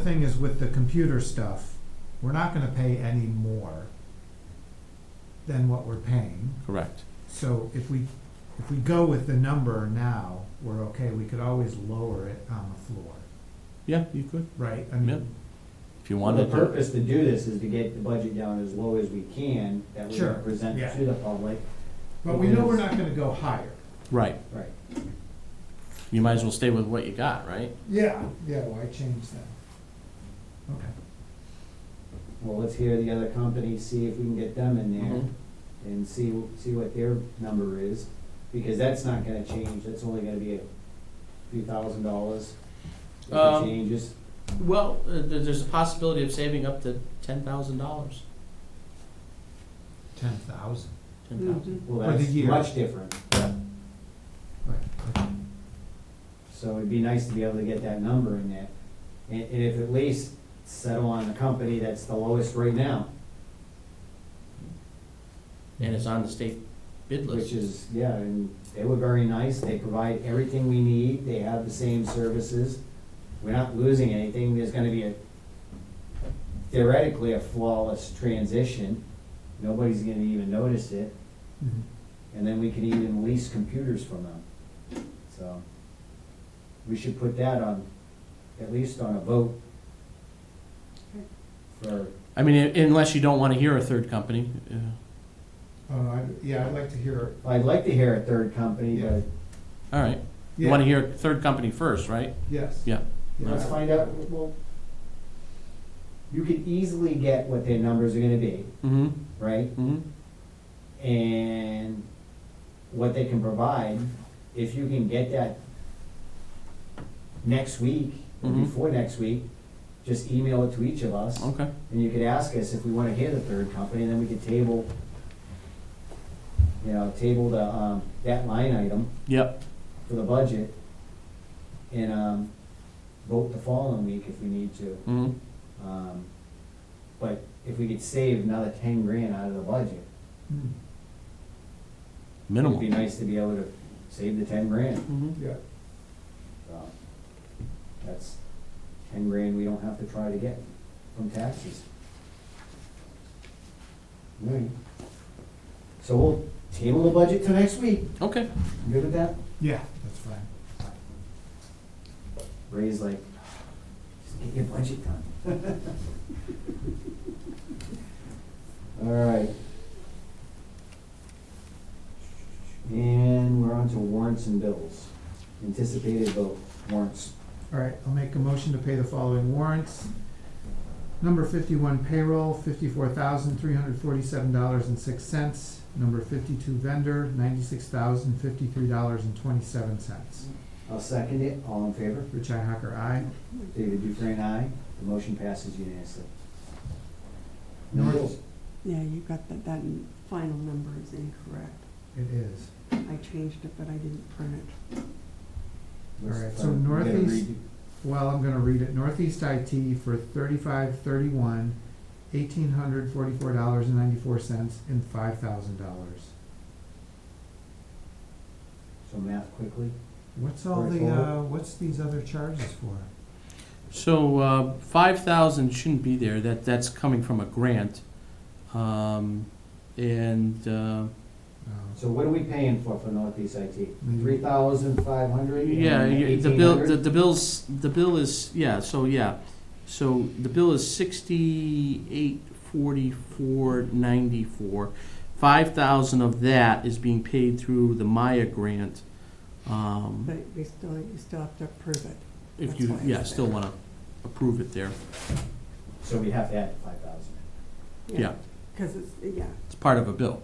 thing is with the computer stuff, we're not gonna pay any more than what we're paying. Correct. So if we, if we go with the number now, we're okay, we could always lower it on the floor, Yeah, you could, right? I Yep. mean, if you Well, wanted the to. purpose to do this is to get the budget down as low as we can, that we Sure, can present yeah. to the public. but we know we're not gonna go higher. Right, Right, you might as well stay with what you got, right? Yeah, yeah, why change that? Okay. well, let's hear the other companies, see if we can get them in there, Mhm. and see, see what their number is, because that's not gonna change, that's only gonna be a few thousand dollars. If it Um, changes, Well, uh, there- there's a possibility of saving up to ten thousand dollars, Ten thousand. ten thousand. well, For the that's year. much different, Right. so it'd be nice to be able to get that number in there. And, and if at least settle on a company that's the lowest right now, And it's on the state bid Which list. is, yeah, and they were very nice, they provide everything we need, they have the same services. We're not losing anything, there's gonna be a theoretically a flawless transition. Nobody's gonna even notice it, Mhm. and then we can even lease computers from them. So, we should put that on, at least on a vote. For, I mean, i- unless you don't wanna hear a third company, uh, Oh, I, yeah, I'd like to hear, I'd like to hear a third company, Yeah. but all right. You wanna yeah, hear a third company first, right? yes. Yeah. Let's Yeah. find out, well, you could easily get what their numbers are gonna be, Mm-hmm, right? mm-hmm, And what they can provide, if you can get that next week, or Mhm. before next week, just email it to each of us, okay. and you could ask us if we wanna hear the third company, and then we could table, you know, table the, um, that line item Yep, for the budget, and, um, vote the following week if we need to. mm-hmm, Um, But if we could save another ten grand out of the budget, Mm, minimal. it'd be nice to be able to save the ten grand. Mm-hmm, Yeah. So, That's ten grand we don't have to try to get from taxes. Alright. So we'll table the budget till next week. okay, You Good with that? Yeah, that's fine. Ray's like, just get your budget done. Alright. And we're on to warrants and bills. Anticipated vote warrants. All right, I'll make a motion to pay the following warrants. Number fifty-one payroll, fifty-four thousand, three hundred forty-seven dollars and six cents. Number fifty-two vendor, ninety-six thousand, fifty-three dollars and twenty-seven cents. I'll second it. All in favor? Richi Hacker, aye. David Dufresne, aye. The motion passes unanimously. Number- Bills. Yeah, you got that, that final number is incorrect. It is. I changed it, but I didn't print it. Alright, so You gotta northeast- redo- Well, I'm gonna read it. Northeast IT for thirty-five, thirty-one, eighteen hundred forty-four dollars and ninety-four cents and five thousand dollars. So math quickly. What's all the, uh, what's these other charges for? so, uh, five thousand shouldn't be there, that, that's coming from a grant. Um, and, uh, Oh. So what are we paying for, for northeast IT? Maybe- Three thousand five hundred Mm-hmm. Yeah, and yeah, eighteen the bill, hundred? the, the bills, the bill is, yeah, so, yeah. So the bill is sixty-eight forty-four ninety-four. Five thousand of that is being paid through the Maya grant. Um, But we still, you still have to approve it. if that's you, why it's yeah, still there. wanna approve it there. So we have to add five thousand. Yeah, Because it's, yeah, it's part of a bill.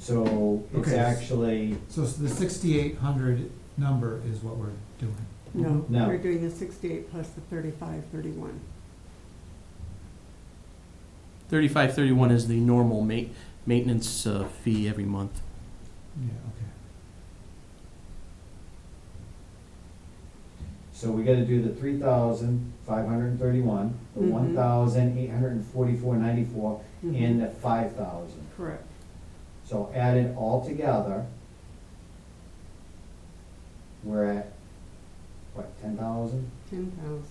So it's Okay. actually, So s- the sixty-eight hundred number is what we're doing. no, No. we're doing the sixty-eight plus the thirty-five, thirty-one. Thirty-five thirty-one is the normal ma- maintenance, uh, fee every month. Yeah, okay. so we gotta do the three thousand five hundred and thirty-one, the Mhm. one thousand eight hundred and forty-four ninety-four, Mm-hmm. and the five thousand. Correct. So added all together, we're at, what, ten thousand? ten thousand.